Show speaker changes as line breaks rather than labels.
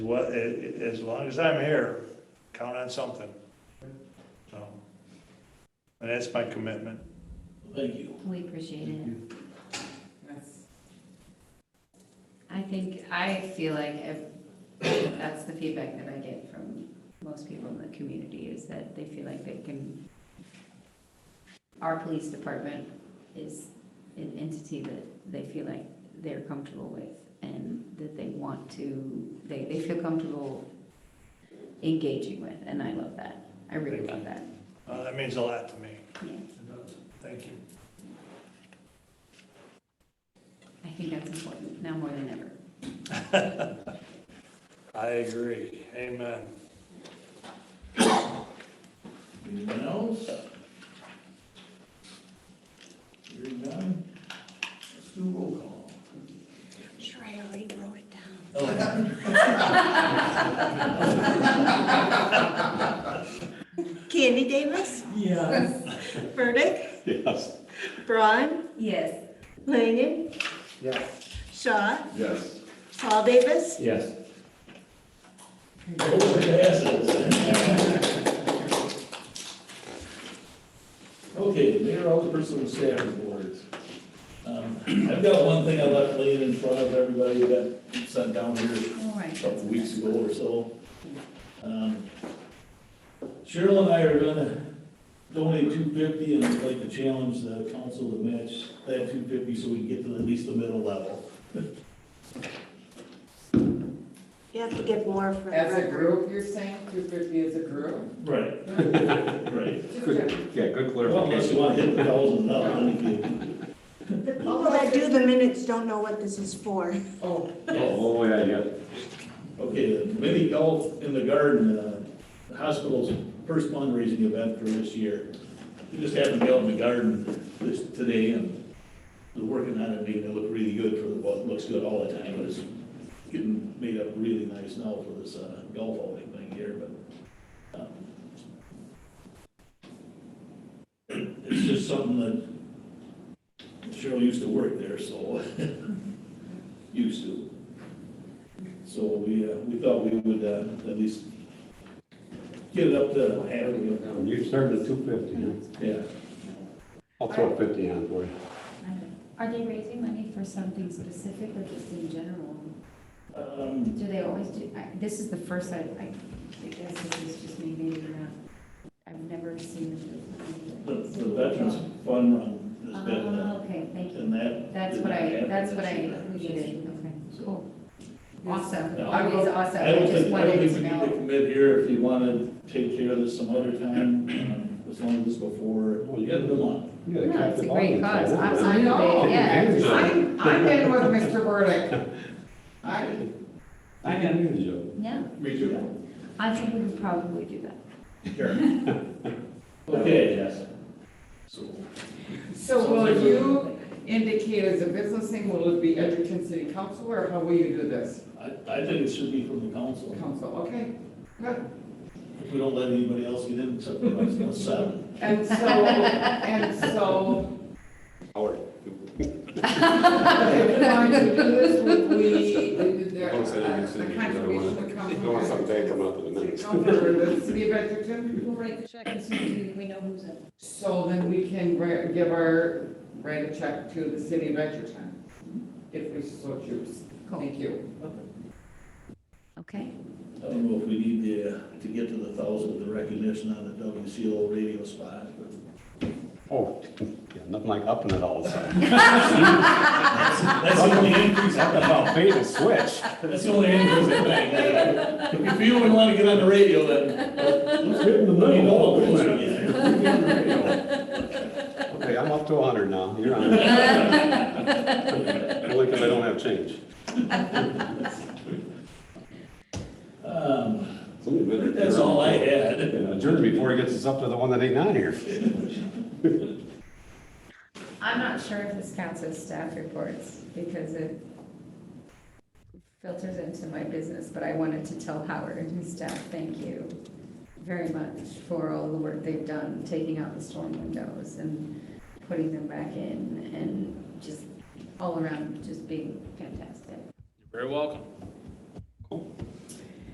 What, a- as long as I'm here, count on something. So, and that's my commitment.
Thank you.
We appreciate it. I think, I feel like if- that's the feedback that I get from most people in the community is that they feel like they can, our police department is an entity that they feel like they're comfortable with and that they want to, they, they feel comfortable engaging with, and I love that. I really love that.
Uh, that means a lot to me.
Yeah.
Thank you.
I think that's important, now more than ever.
I agree. Amen.
Anyone else? Hearing none? Let's do roll call.
Sure, I already wrote it down.
Oh,
Candy Davis,
yeah.
Burdick,
Yes.
Braun,
Yes.
Langen,
Yes.
Shaw,
Yes.
Paul Davis,
Yes.
Motion passes. Okay, Mayor, Alderperson, and staff reports. Um, I've got one thing I left laying in front of everybody that sent down here
All right.
a couple weeks ago or so. Um, Cheryl and I are gonna donate two fifty and I'd like to challenge the council to match that two fifty so we can get to at least the middle level.
you have to give more for the
As a
record.
group, you're saying two fifty as a group?
Right. Right.
Good, yeah, good
Well, unless
clarification.
you wanna hit the thousand up, then
The people that do the minutes don't know what this is for.
Oh,
Oh, yeah, yeah.
you can. Okay, the mini golf in the garden, uh, the hospital's first fundraising event for this year. We just happened to be out in the garden this, today and we're working on it, making it look really good for the, well, it looks good all the time, but it's getting made up really nice now for this, uh, golf outing thing here, but, um, it's just something that Cheryl used to work there, so, used to. So we, uh, we thought we would, uh, at least get it up to half, you know,
You started at two fifty,
yeah.
I'll throw fifty on for you.
Are they raising money for something specific or just in general?
Um,
Do they always do, I- this is the first I, I I guess this is just me maybe not, I've never seen them
the,
do
the veterans fund run has been,
Oh,
uh,
okay, thank you.
and that.
That's
did
what
not
I,
happen
that's
this
what I
year.
needed, okay,
So-
cool. Awesome,
No, I
always
don't-
awesome,
I
I
don't
just
think, I don't think
wanted to
we need to
know.
commit here if you want to take care of this some other time, um, as long as before,
Well,
you got the month.
Yeah,
No, it's a
the
great cause,
audience, I
I'm,
wonder.
I know.
I'm, yeah.
I'm, I'm in with Mr. Burdick. I,
I can use you.
Yeah,
Me
I think we could probably do that.
Okay, yes. So,
so will you indicate as a business thing, will it be Edgerton City Council, or how will you do this?
I, I think it should be from the council,
Council, okay, good.
if we don't let anybody else get in except for us, that's seven.
And so, and so,
Howard.
if we wanted to do this, would we, the, the
uh,
Don't say you consider it
the
another
contribution
one.
would come
Don't want
from
something to come up in a
the
minute.
city council or the city of Edgerton?
We'll write the check as soon as we know who's in.
So then we can ri- give our, write a check to the city of Edgerton, if we so choose. Thank you.
Okay.
I don't know if we need the, uh, to get to the thousand, with the recognition on the WCO radio spot, but
Oh, yeah, nothing like upping it all of a sudden.
that's the only increase I can help.
I'll pay the switch.
That's the only answer that I can If you don't want to get on the radio, then. Let's get in the middle.
Okay, I'm up to a hundred now, you're on. Only because I don't have change.
Um,
Somebody better-
That's all I had.
Adjourn before he gets us up to the one that ain't on here.
I'm not sure if this counts as staff reports because it filters into my business, but I wanted to tell Howard and his staff, thank you very much for all the work they've done, taking out the storm windows and putting them back in and just all around, just being fantastic.
Very welcome.